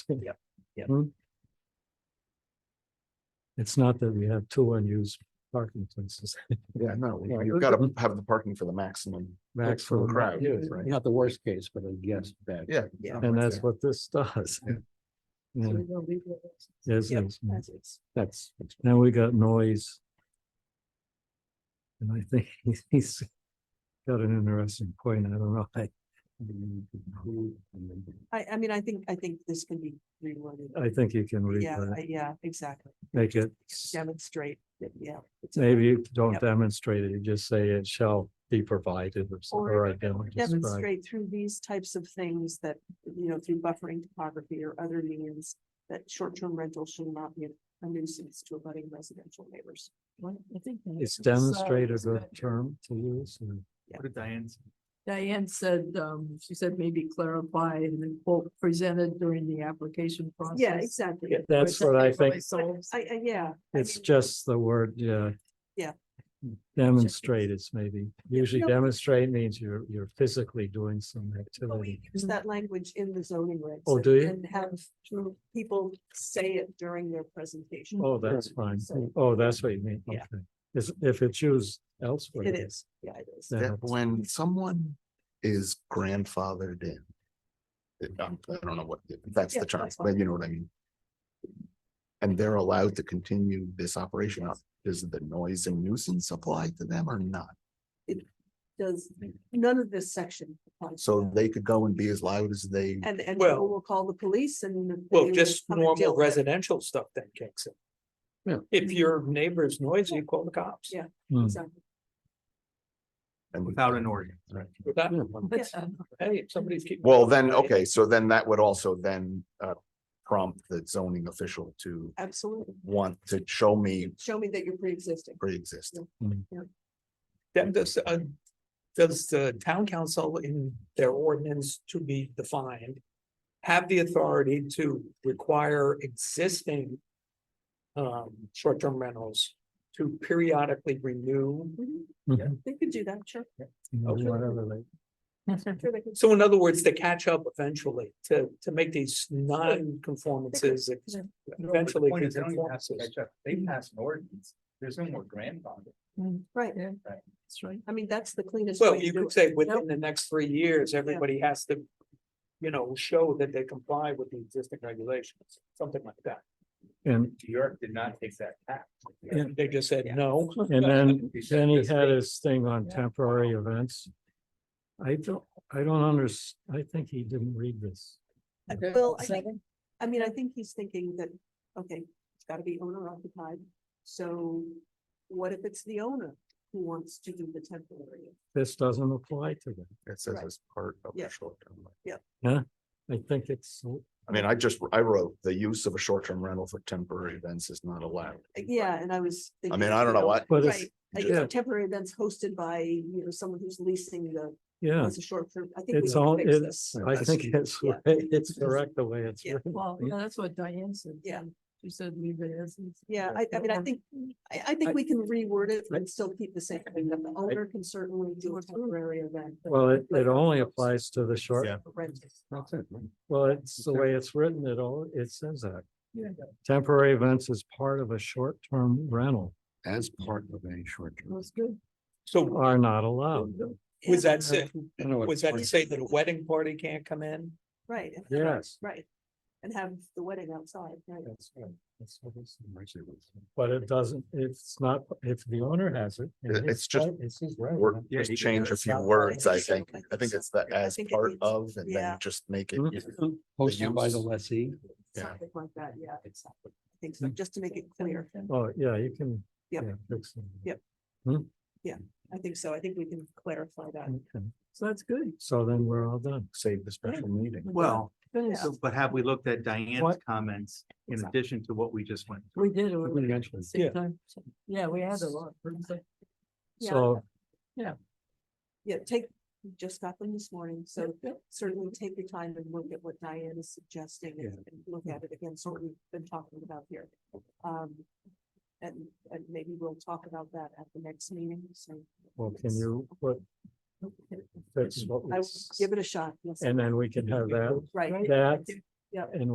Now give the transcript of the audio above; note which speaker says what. Speaker 1: Yeah.
Speaker 2: Yeah.
Speaker 1: Hmm? It's not that we have two unused parking places.
Speaker 2: Yeah, no,
Speaker 1: Yeah.
Speaker 2: you've got to have the parking for the maximum.
Speaker 1: Max
Speaker 2: for the
Speaker 1: for-
Speaker 2: crowd,
Speaker 1: Yeah,
Speaker 2: right?
Speaker 1: Not the worst case, but I guess bad.
Speaker 2: Yeah. Yeah.
Speaker 1: And that's what this does.
Speaker 2: Yeah.
Speaker 1: Yeah, yes, yes, yeah.
Speaker 2: That's.
Speaker 1: Now we got noise. And I think he's- he's got an interesting point. I don't know. I,
Speaker 3: I, I mean, I think, I think this can be reworded.
Speaker 1: I think you can read
Speaker 3: Yeah,
Speaker 1: that,
Speaker 3: I- yeah, exactly.
Speaker 1: make it,
Speaker 3: Demonstrate, that, yeah. it's a-
Speaker 1: maybe you don't
Speaker 3: Yep.
Speaker 1: demonstrate it, you just say it shall be provided or something.
Speaker 3: Or
Speaker 1: or identified.
Speaker 3: Demonstrate through these types of things that, you know, through buffering topography or other means, that short-term rental should not be a nuisance to abutting residential neighbors. I think.
Speaker 1: Is demonstrate a good term to use? or-
Speaker 2: What did Diane? say?
Speaker 4: Diane said, um, she said maybe clarify and then quote presented during the application process.
Speaker 3: Yeah, exactly.
Speaker 1: That's what I think.
Speaker 3: I, I, yeah. I
Speaker 1: It's
Speaker 3: mean,
Speaker 1: just the word, yeah.
Speaker 3: Yeah.
Speaker 1: Demonstrate is maybe, usually
Speaker 3: No.
Speaker 1: demonstrate means you're, you're physically doing some
Speaker 3: But we
Speaker 1: activity.
Speaker 3: use that language in the zoning regs.
Speaker 1: Oh,
Speaker 3: and-
Speaker 1: do you?
Speaker 3: And have two people say it during their presentation.
Speaker 1: Oh, that's fine.
Speaker 3: So-
Speaker 1: Oh, that's what you mean.
Speaker 3: Yeah.
Speaker 1: Okay. Is, if it's used elsewhere.
Speaker 3: It is, yeah, it is.
Speaker 1: then
Speaker 2: That
Speaker 1: it's-
Speaker 2: when someone is grandfathered in. it- um, I don't know what, that's
Speaker 3: Yeah,
Speaker 2: the term,
Speaker 3: that's fine.
Speaker 2: but you know what I mean. And they're allowed to continue this operation, does the noise and nuisance apply to them or not?
Speaker 3: Does, none of this section. applies to
Speaker 2: So
Speaker 3: that.
Speaker 2: they could go and be as loud as they,
Speaker 3: And, and
Speaker 5: Well-
Speaker 3: people will call the police and.
Speaker 5: Well,
Speaker 3: they will
Speaker 5: just
Speaker 3: come and deal
Speaker 5: normal
Speaker 3: with it.
Speaker 5: residential stuff then kicks
Speaker 2: Yeah.
Speaker 5: in. If your neighbor's noisy, call the cops.
Speaker 3: Yeah.
Speaker 1: Hmm.
Speaker 3: Exactly.
Speaker 2: and we-
Speaker 6: Without an ordinance, right?
Speaker 5: Without-
Speaker 3: Yeah.
Speaker 5: Hey, if somebody's keeping.
Speaker 2: well, then, okay, so then that would also then uh prompt the zoning official to
Speaker 3: Absolutely.
Speaker 2: want to show me
Speaker 3: Show me that you're pre-existing.
Speaker 2: pre-existing.
Speaker 5: Then does, uh, does the town council in their ordinance to be defined? Have the authority to require existing. Um, short-term rentals to periodically renew.
Speaker 3: Mhm.
Speaker 1: Yeah.
Speaker 3: They could do that, sure.
Speaker 5: Okay.
Speaker 1: Whatever they-
Speaker 3: Sure, they could.
Speaker 5: So in other words, to catch up eventually, to, to make these non-conformances. ex-
Speaker 6: No, but the
Speaker 5: Eventually.
Speaker 6: point is, they don't even have to
Speaker 5: conformances.
Speaker 6: catch up. They pass an ordinance, there's no more grandfather.
Speaker 3: Right,
Speaker 4: That's right.
Speaker 3: I mean, that's the cleanest.
Speaker 5: Well,
Speaker 3: way to
Speaker 5: you
Speaker 3: do
Speaker 5: could
Speaker 3: it.
Speaker 5: say within the next three years, everybody has to, you know, show that they comply with the existing regulations, something like that.
Speaker 1: And,
Speaker 6: New York did not take that tack.
Speaker 1: Yeah.
Speaker 5: They just said no.
Speaker 1: and then,
Speaker 6: He said
Speaker 1: then he
Speaker 6: this
Speaker 1: had
Speaker 6: thing.
Speaker 1: his thing on temporary events. I don't, I don't under, I think he didn't read this.
Speaker 3: I- Well, I think, I mean, I think he's thinking that, okay, it's gotta be owner occupied, so what if it's the owner who wants to do the temporary?
Speaker 1: This doesn't apply to them.
Speaker 2: It says
Speaker 3: Right.
Speaker 2: as part of
Speaker 3: Yeah.
Speaker 2: the short term.
Speaker 1: I think it's,
Speaker 2: I mean, I just, I wrote the use of a short term rental for temporary events is not allowed.
Speaker 3: Uh, Yeah, and I was.
Speaker 2: I
Speaker 3: thinking,
Speaker 2: mean, I don't know
Speaker 3: you
Speaker 2: what,
Speaker 1: but it's,
Speaker 3: Right, like
Speaker 1: Yeah.
Speaker 3: it's temporary events hosted by, you know, someone who's leasing the,
Speaker 1: yeah,
Speaker 3: as a short term, I think. we
Speaker 1: it's
Speaker 3: can
Speaker 1: all,
Speaker 3: fix
Speaker 1: it's,
Speaker 3: this.
Speaker 1: I
Speaker 2: That's-
Speaker 1: think it's,
Speaker 3: yeah.
Speaker 1: it's correct the way it's
Speaker 3: Yeah.
Speaker 1: written.
Speaker 4: Well, yeah, that's what Diane said.
Speaker 3: Yeah.
Speaker 4: She said leave it as. is.
Speaker 3: Yeah, I, I mean, I
Speaker 4: Yeah.
Speaker 3: think, I, I think we can reword it and still keep the same thing, that the owner can certainly do a temporary event. but
Speaker 1: Well, it, it
Speaker 3: but
Speaker 1: only
Speaker 3: it's
Speaker 1: applies to the short,
Speaker 2: Yeah.
Speaker 3: rented.
Speaker 2: that's it. right?
Speaker 1: well, it's the way it's written, it all, it says that.
Speaker 4: Yeah.
Speaker 1: Temporary events is part of a short-term rental
Speaker 2: As part of a short term.
Speaker 4: That's good.
Speaker 5: So
Speaker 1: are not allowed.
Speaker 5: was
Speaker 3: uh,
Speaker 5: that,
Speaker 1: Oh, Yeah.
Speaker 5: say- was that to say that a wedding party can't come in?
Speaker 3: Right. and-
Speaker 1: Yes.
Speaker 3: Right, and have the wedding outside, right?
Speaker 1: But it doesn't, it's not, if the owner has it. and
Speaker 2: It-
Speaker 1: his
Speaker 2: it's just
Speaker 1: right- It's his right.
Speaker 2: Or
Speaker 6: Yeah,
Speaker 2: just
Speaker 6: you can
Speaker 2: change
Speaker 6: do
Speaker 2: a
Speaker 6: it.
Speaker 2: few
Speaker 3: Yeah.
Speaker 2: words, I think.
Speaker 3: Yeah.
Speaker 2: I think it's the
Speaker 3: I
Speaker 2: as
Speaker 3: think it
Speaker 2: part
Speaker 3: needs-
Speaker 2: of and
Speaker 3: yeah.
Speaker 2: then just make it.
Speaker 5: Mm-hmm.
Speaker 1: Mhm.
Speaker 2: Hosted by the
Speaker 6: lessee. Yeah.
Speaker 3: Something like that, yeah, exactly. I think
Speaker 1: Mm.
Speaker 3: so, just to make it clear,
Speaker 1: Oh, yeah, you can.
Speaker 3: Yep.
Speaker 1: yeah, fix it.
Speaker 3: Yep.
Speaker 1: Hmm?
Speaker 3: I think so, I think we can clarify that.
Speaker 1: Okay.
Speaker 4: So that's good.
Speaker 1: So then we're all done.
Speaker 2: Save the special meeting.
Speaker 6: Well,
Speaker 4: Finish.
Speaker 6: so- but have we looked at Diane's
Speaker 1: What?
Speaker 6: comments in
Speaker 3: Exactly.
Speaker 6: addition to what we just went? through?
Speaker 4: We did. it at
Speaker 1: Eventually.
Speaker 4: the same time. Yeah, we had a lot.
Speaker 3: Yeah.
Speaker 1: So,
Speaker 3: Yeah, take, we just got them this morning, so
Speaker 4: yeah.
Speaker 3: certainly take your time and look at what Diane is suggesting and and look at it again, sort of we've been talking about here. Um, and, and maybe we'll talk about that at the next meeting, so.
Speaker 1: well, can you, what, that's what, we
Speaker 3: I will
Speaker 1: s-
Speaker 3: give it a shot, yes,
Speaker 1: and then we can have that,
Speaker 3: right.
Speaker 1: that.
Speaker 3: Yep.
Speaker 1: And